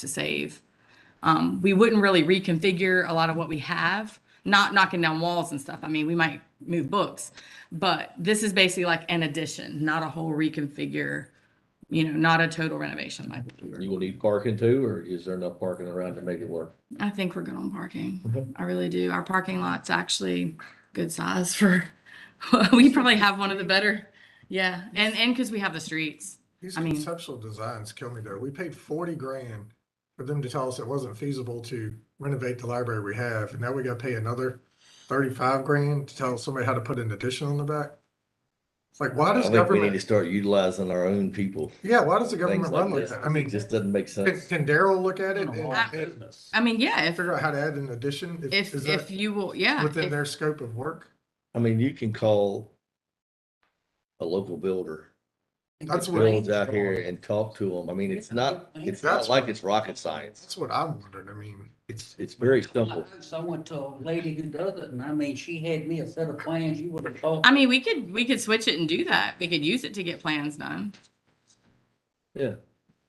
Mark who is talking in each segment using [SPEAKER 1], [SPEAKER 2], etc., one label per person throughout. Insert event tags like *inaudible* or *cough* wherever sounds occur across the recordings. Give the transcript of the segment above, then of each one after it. [SPEAKER 1] to save. Um, we wouldn't really reconfigure a lot of what we have, not knocking down walls and stuff. I mean, we might move books, but this is basically like an addition, not a whole reconfigure, you know, not a total renovation like we were.
[SPEAKER 2] You will need parking too, or is there enough parking around to make it work?
[SPEAKER 1] I think we're good on
[SPEAKER 2] Okay.
[SPEAKER 1] parking. I really do. Our parking lot's actually good size for, *laughs* we probably have one of the better. Yeah, and, and because we have the streets.
[SPEAKER 3] These
[SPEAKER 1] I mean-
[SPEAKER 3] conceptual designs kill me though. We paid forty grand for them to tell us it wasn't feasible to renovate the library we have, and now we gotta pay another thirty-five grand to tell somebody how to put an addition on the back. It's like, why
[SPEAKER 2] I
[SPEAKER 3] does
[SPEAKER 2] think we need to
[SPEAKER 3] government,
[SPEAKER 2] start utilizing our own people.
[SPEAKER 3] yeah, why does the
[SPEAKER 2] Things
[SPEAKER 3] government run
[SPEAKER 2] like
[SPEAKER 3] like
[SPEAKER 2] this,
[SPEAKER 3] that? I mean,
[SPEAKER 2] it just doesn't make
[SPEAKER 3] can,
[SPEAKER 2] sense.
[SPEAKER 3] can Daryl look at it and and
[SPEAKER 1] I mean, yeah, if,
[SPEAKER 3] figure out how to add an addition?
[SPEAKER 1] if,
[SPEAKER 3] Is
[SPEAKER 1] if
[SPEAKER 3] that
[SPEAKER 1] you will, yeah.
[SPEAKER 3] within
[SPEAKER 1] if-
[SPEAKER 3] their scope of work?
[SPEAKER 2] I mean, you can call a local builder,
[SPEAKER 3] That's what-
[SPEAKER 2] builds out here and talk to them. I mean, it's not, it's not
[SPEAKER 3] That's-
[SPEAKER 2] like it's rocket science.
[SPEAKER 3] That's what I'm wondering. I mean,
[SPEAKER 2] It's,
[SPEAKER 3] *laughs*
[SPEAKER 2] it's very
[SPEAKER 4] I
[SPEAKER 2] simple.
[SPEAKER 4] heard Someone to a lady who does it, and I mean, she had me a set of plans, you would have thought.
[SPEAKER 1] I mean, we could, we could switch it and do that. We could use it to get plans done.
[SPEAKER 2] Yeah.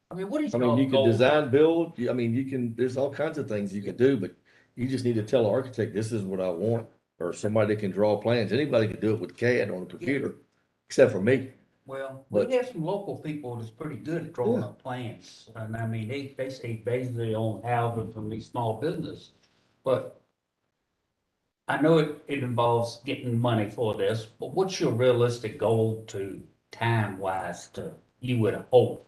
[SPEAKER 4] I mean, what is?
[SPEAKER 2] I mean, you can
[SPEAKER 4] y'all-
[SPEAKER 2] design, build, you- I mean, you can, there's all kinds of things you can do, but you just need to tell an architect, this is what I want. Or somebody that can draw plans. Anybody can do it with CAD on a computer, except for me.
[SPEAKER 4] Well,
[SPEAKER 2] But-
[SPEAKER 4] we have some local people that's pretty good at drawing
[SPEAKER 2] Yeah.
[SPEAKER 4] up plans, and I mean, they, they stay basically on housing from these small business, but I know it, it involves getting money for this, but what's your realistic goal to time-wise to, you would hope?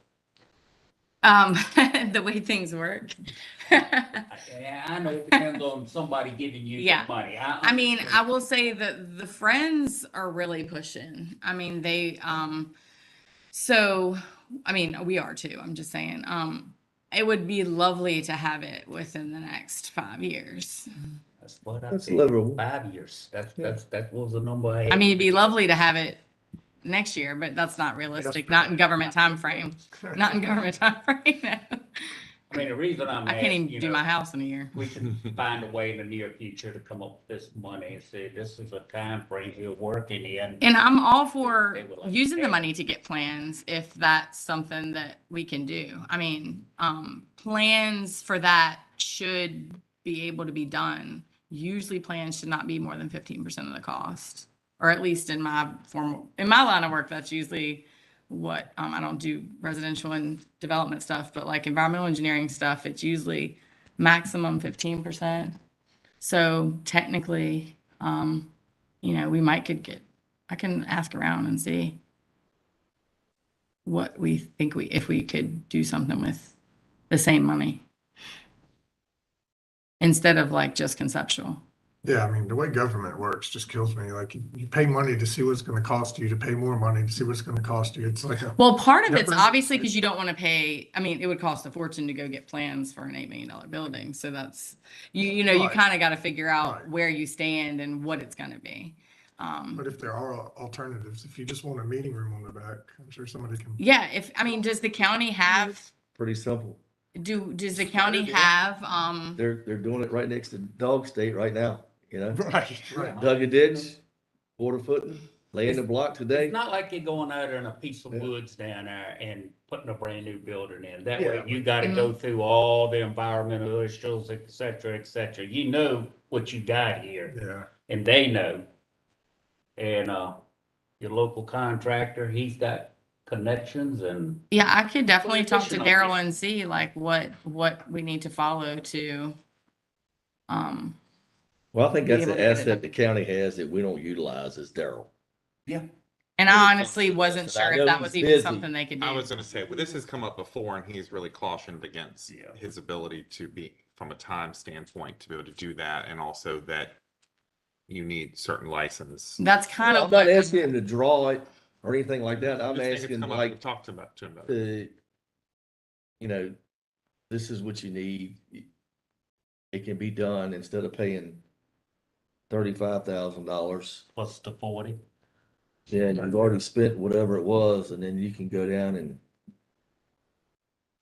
[SPEAKER 1] Um, *laughs* the way things work. *laughs*
[SPEAKER 4] Yeah, I know it depends on somebody giving you
[SPEAKER 1] Yeah.
[SPEAKER 4] the money.
[SPEAKER 1] I mean,
[SPEAKER 4] understand.
[SPEAKER 1] I will say that the friends are really pushing. I mean, they um so I mean, we are too. I'm just saying. Um it would be lovely to have it within the next 5 years.
[SPEAKER 4] That's what I
[SPEAKER 2] That's
[SPEAKER 4] said,
[SPEAKER 2] livable.
[SPEAKER 4] five years. That's,
[SPEAKER 2] Yeah.
[SPEAKER 4] that's, that was the number I had.
[SPEAKER 1] I mean, it'd be lovely to have it next year, but that's not realistic. Not in government time frame. Not in government time frame.
[SPEAKER 4] I mean, the reason I'm
[SPEAKER 1] *laughs* I can't
[SPEAKER 4] asking,
[SPEAKER 1] even
[SPEAKER 4] you
[SPEAKER 1] do my
[SPEAKER 4] know,
[SPEAKER 1] house in a year.
[SPEAKER 4] we can find a way in the near future to come up with this money and say, this is a time frame you're working in.
[SPEAKER 1] And I'm all for
[SPEAKER 4] They were like,
[SPEAKER 1] using the
[SPEAKER 4] "Hey."
[SPEAKER 1] money to get plans if that's something that we can do. I mean, um, plans for that should be able to be done. Usually plans should not be more than fifteen percent of the cost, or at least in my formal, in my line of work, that's usually what, um, I don't do residential and development stuff, but like environmental engineering stuff, it's usually maximum fifteen percent. So technically, um, you know, we might could get I can ask around and see what we think we, if we could do something with the same money. Instead of like just conceptual.
[SPEAKER 3] Yeah, I mean, the way government works just kills me. Like, you- you pay money to see what's gonna cost you, to pay more money to see what's gonna cost you. It's like, *laughs* a-
[SPEAKER 1] Well, part of it's
[SPEAKER 3] Different-
[SPEAKER 1] obviously because you don't want to pay, I mean, it would cost a fortune to go get plans for an eight million dollar building. So that's, you, you know, you
[SPEAKER 3] Right.
[SPEAKER 1] kind of got to figure out
[SPEAKER 3] Right.
[SPEAKER 1] where you stand and what it's going to be. Um,
[SPEAKER 3] but if there are al- alternatives, if you just want a meeting room on the back, I'm sure somebody can.
[SPEAKER 1] yeah, if, I mean, does the county have,
[SPEAKER 2] Pretty simple.
[SPEAKER 1] do, does the
[SPEAKER 3] Spread it
[SPEAKER 1] county
[SPEAKER 3] out.
[SPEAKER 1] have, um,
[SPEAKER 2] They're, they're doing it right next to Dog State right now, you know?
[SPEAKER 3] *laughs* Right, right.
[SPEAKER 2] Dug a ditch, quarter footing, laying the block today.
[SPEAKER 4] It's not like you're going out in a piece of
[SPEAKER 2] Yeah.
[SPEAKER 4] woods down there and putting a brand new building in. That
[SPEAKER 3] Yeah.
[SPEAKER 4] way you gotta
[SPEAKER 1] Mm.
[SPEAKER 4] go through all the environmental issues, et cetera, et cetera. You know what you got here.
[SPEAKER 3] Yeah,
[SPEAKER 4] and they know. And, uh, your local contractor, he's got connections and
[SPEAKER 1] Yeah, I could definitely
[SPEAKER 4] you
[SPEAKER 1] talk to
[SPEAKER 4] pushing on
[SPEAKER 1] Daryl
[SPEAKER 4] here?
[SPEAKER 1] and see like what, what we need to follow to, um,
[SPEAKER 2] Well, I think
[SPEAKER 1] Be
[SPEAKER 2] that's
[SPEAKER 1] able
[SPEAKER 2] an
[SPEAKER 1] to get it.
[SPEAKER 2] asset the county has that we don't utilize is Daryl.
[SPEAKER 1] and
[SPEAKER 5] Really
[SPEAKER 1] I
[SPEAKER 5] talk
[SPEAKER 1] honestly
[SPEAKER 5] to
[SPEAKER 1] wasn't
[SPEAKER 2] this, and I
[SPEAKER 1] sure if
[SPEAKER 2] know
[SPEAKER 1] that
[SPEAKER 2] he's
[SPEAKER 1] was even
[SPEAKER 2] busy.
[SPEAKER 1] something they could
[SPEAKER 5] I
[SPEAKER 1] do.
[SPEAKER 5] was gonna say, well, this has come up before and he's really cautioned against
[SPEAKER 2] Yeah.
[SPEAKER 5] his ability to be, from a time standpoint, to be able to do that and also that you need certain license.
[SPEAKER 1] That's kind
[SPEAKER 2] I'm
[SPEAKER 1] of
[SPEAKER 2] not
[SPEAKER 1] what,
[SPEAKER 2] asking him to draw it or anything like that. I'm
[SPEAKER 5] Just think it's
[SPEAKER 2] asking
[SPEAKER 5] come up,
[SPEAKER 2] like
[SPEAKER 5] we've Talked about to him about it.
[SPEAKER 2] the, you know, this is what you need. It can be done instead of paying thirty-five thousand dollars.
[SPEAKER 4] plus the forty.
[SPEAKER 2] Yeah, you've already spent whatever it was and then you can go down and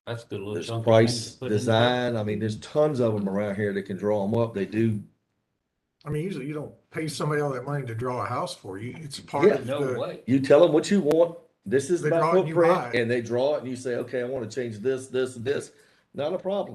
[SPEAKER 4] That's a good. little
[SPEAKER 2] There's
[SPEAKER 4] chunk of money to
[SPEAKER 2] price,
[SPEAKER 4] put in there.
[SPEAKER 2] design, I mean, there's tons of them around here that can draw them up, they do,
[SPEAKER 3] I mean, usually you don't pay somebody all that money to draw a house for you. It's part
[SPEAKER 2] Yeah.
[SPEAKER 3] of
[SPEAKER 4] No
[SPEAKER 3] the,
[SPEAKER 4] way.
[SPEAKER 2] you tell them what you want, this is
[SPEAKER 3] They
[SPEAKER 2] my
[SPEAKER 3] draw it and you buy
[SPEAKER 2] footprint,
[SPEAKER 3] it.
[SPEAKER 2] and they draw it, and you say, okay, I wanna change this, this, and this, not a problem.